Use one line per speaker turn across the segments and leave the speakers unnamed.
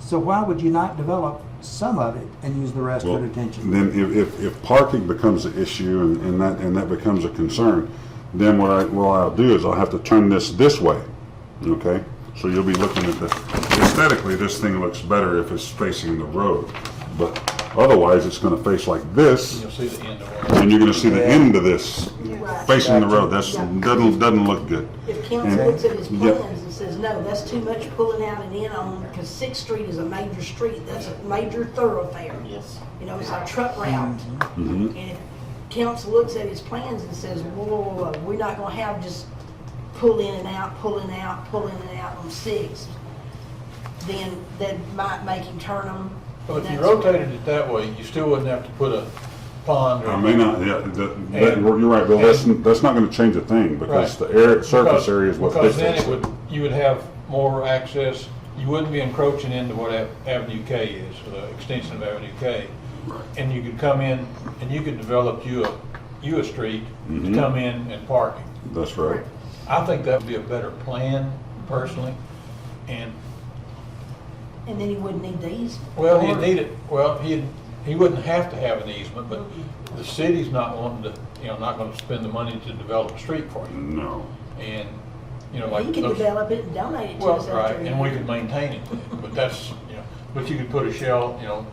So why would you not develop some of it and use the rest for detention?
Then if, if, if parking becomes an issue and, and that, and that becomes a concern, then what I, what I'll do is I'll have to turn this this way, okay? So you'll be looking at the, aesthetically, this thing looks better if it's facing the road. But otherwise, it's gonna face like this
You'll see the end of it.
and you're gonna see the end of this
Right.
facing the road. That's, doesn't, doesn't look good.
If council
And-
looks at his
Yep.
plans and says, no, that's too much pulling out and in on, because Sixth Street is a major street, that's a major thoroughfare.
Yes.
You know, it's our truck route. And if council looks at his plans and says, whoa, whoa, whoa, we're not gonna have just pull in and out, pull in and out, pull in and out on Sixth, then that might make him turn them.
Well, if you rotated it that way, you still wouldn't have to put a pond or.
I may not, yeah, that, that,
And-
you're right, but that's,
and-
that's not gonna change a thing because the
Right.
air, surface
Because-
area is what
Because
dictates.
then it
it.
would, you would have more access, you wouldn't be encroaching into what Ave- Avenue K is, the extension of Avenue K. And you could come in and you could develop you a, you a street
Mm-hmm.
to come in and parking.
That's right.
I think that would be a better plan personally. And,
And then he wouldn't need these.
well, he'd need it, well, he, he wouldn't have to have an easement, but
Mm-hmm.
the city's not wanting to, you know, not gonna spend the money to develop a street for you.
No.
And, you know, like.
He could
those-
develop it and donate it to
Well,
us
right,
after.
and we could maintain it, but that's, you know, but you could put a shell, you know,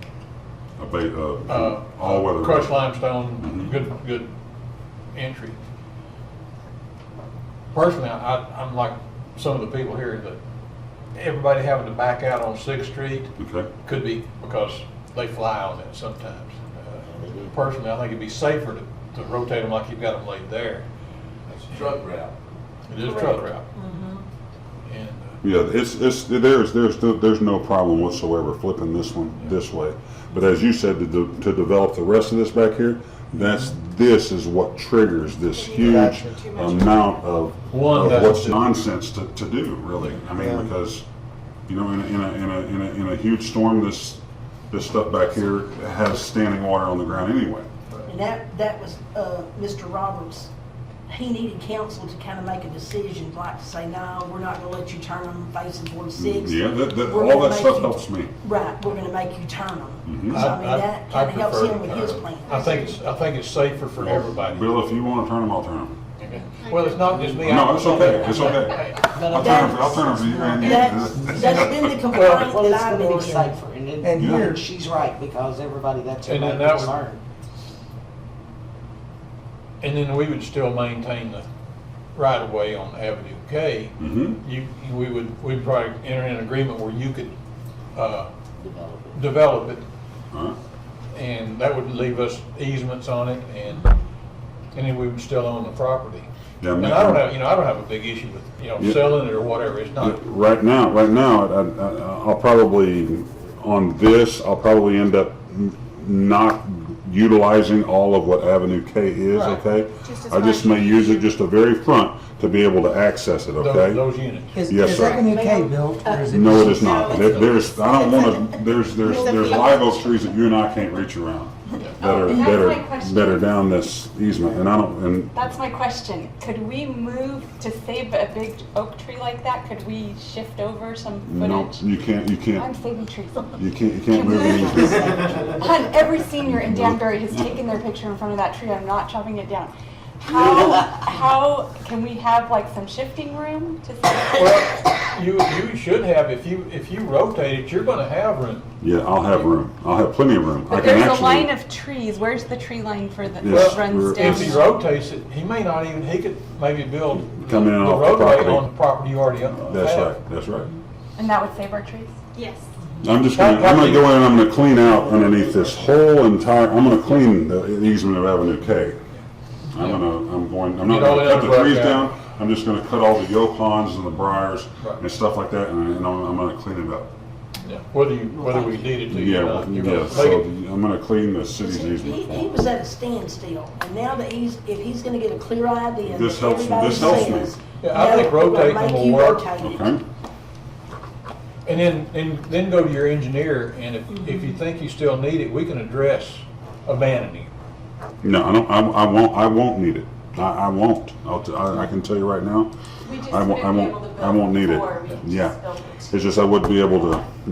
A ba- uh,
uh,
all weather. Mm-hmm.
crushed limestone, good, good entry. Personally, I, I'm like some of the people here that everybody having to back out on Sixth Street
Okay.
could be because they fly on it sometimes. Uh, Personally, I think it'd be safer to, to rotate them like you've got them laid there.
It's a truck route.
It is truck route.
Mm-hmm.
And, uh,
Yeah, it's, it's, there's, there's, there's no problem whatsoever flipping this one this way. But as you said, to, de- to develop the rest of this back here, that's, this is what triggers this huge amount of,
One
of
that-
what's nonsense to, to do, really. I mean, because, you know, in a, in a, in a, in a, in a huge storm, this, this stuff back here has standing water on the ground anyway.
And that, that was, uh, Mr. Roberts, he needed council to kind of make a decision, like to say, no, we're not gonna let you turn them facing toward six.
Yeah, that, that,
We're
all
gonna
that
make
stuff
you-
helps me.
Right, we're gonna make you turn
Mm-hmm.
them. So
I-
I mean,
I-
that
I
kind of helps
prefer
him
to
with
turn
his
them.
plan.
I think it's, I think it's safer for everybody.
Bill, if you wanna turn them, I'll turn them.
Well, it's not just me.
No, it's okay, it's okay. I'll turn them, I'll turn them for you,
That's,
Randy.
that's been the complaint
Well,
that
it's
I've
gonna
been
be
hearing.
safer, and then,
And
I
here-
think she's right, because everybody, that's her
And then
main
that would-
concern.
And then we would still maintain the right of way on Avenue K.
Mm-hmm.
You, you- we would, we'd probably enter an agreement where you could, uh, develop it
Alright.
and that would leave us easements on it and, and then we would still own the property.
Yeah,
And
man.
I don't have, you know, I don't have a big issue with, you know,
Yeah.
selling it or whatever. It's not,
Right now, right now, I, I, I'll probably, on this, I'll probably end up n- not utilizing all of what Avenue K is,
Right.
okay?
Just as
I just
much.
may use it just the very front to be able to access it,
those,
okay?
those units.
Is,
Yes,
is
sir.
Avenue K built or is it?
No, it is not.
No,
There-
it's-
There's, I don't wanna, there's, there's,
It's a
there's
field.
live oak trees that you and I can't reach around that
Oh,
are,
and that's
that
my
are,
question.
that are down this easement, and I don't, and
That's my question. Could we move to save a big oak tree like that? Could we shift over some
no,
footage?
you can't, you
I'm
can't,
saving trees.
you can't, you can't move any
Hun, every senior in Danbury has taken their picture in front of that tree. I'm not chopping it down. How, how can we have like some shifting room to save?
Well, you, you should have, if you, if you rotate it, you're gonna have room.
Yeah, I'll have room. I'll have plenty of room. I
But
can
there's a
actually.
line of trees. Where's the tree line for the,
Yes,
that runs
we're-
down?
If he rotates it, he may not even, he could maybe build the
Come in off the
roadway
property.
on the property you already own.
That's right, that's right.
And that would save our trees?
Yes.
I'm just gonna, I'm gonna go in and I'm gonna clean out underneath this whole entire, I'm gonna clean the easement of Avenue K. I'm gonna, I'm going, I'm not
Get all
gonna
the
cut the
underbrush
trees
out.
down. I'm just gonna cut all the yopons and the briars
Right.
and stuff like that and and I'm, I'm gonna clean it up.
Yeah, Whether you, whether we needed to,
Yeah,
you
well,
know, you're gonna
yeah,
make
so
it,
the- I'm gonna clean the city's
He, he- he
easement.
was at a standstill, and now that he's, if he's gonna get a clear idea.
This
that
helps me-
everybody
this helps me.
says,
Yeah, I
"No,
think
we're gonna
rotating
make
will
you
work."
rotate it."
Okay?
and then, and then go to your engineer, and if, if you think you still need it, we can address abandoning. it.
No, I don't, I, I won't, I won't need it. I, I won't. I'll, t- I, I can tell you right now.
We just
I won't, I
wouldn't
won't,
be able to
I
build
won't need it.
before, we just
Yeah.
build it.
It's just I wouldn't be able to,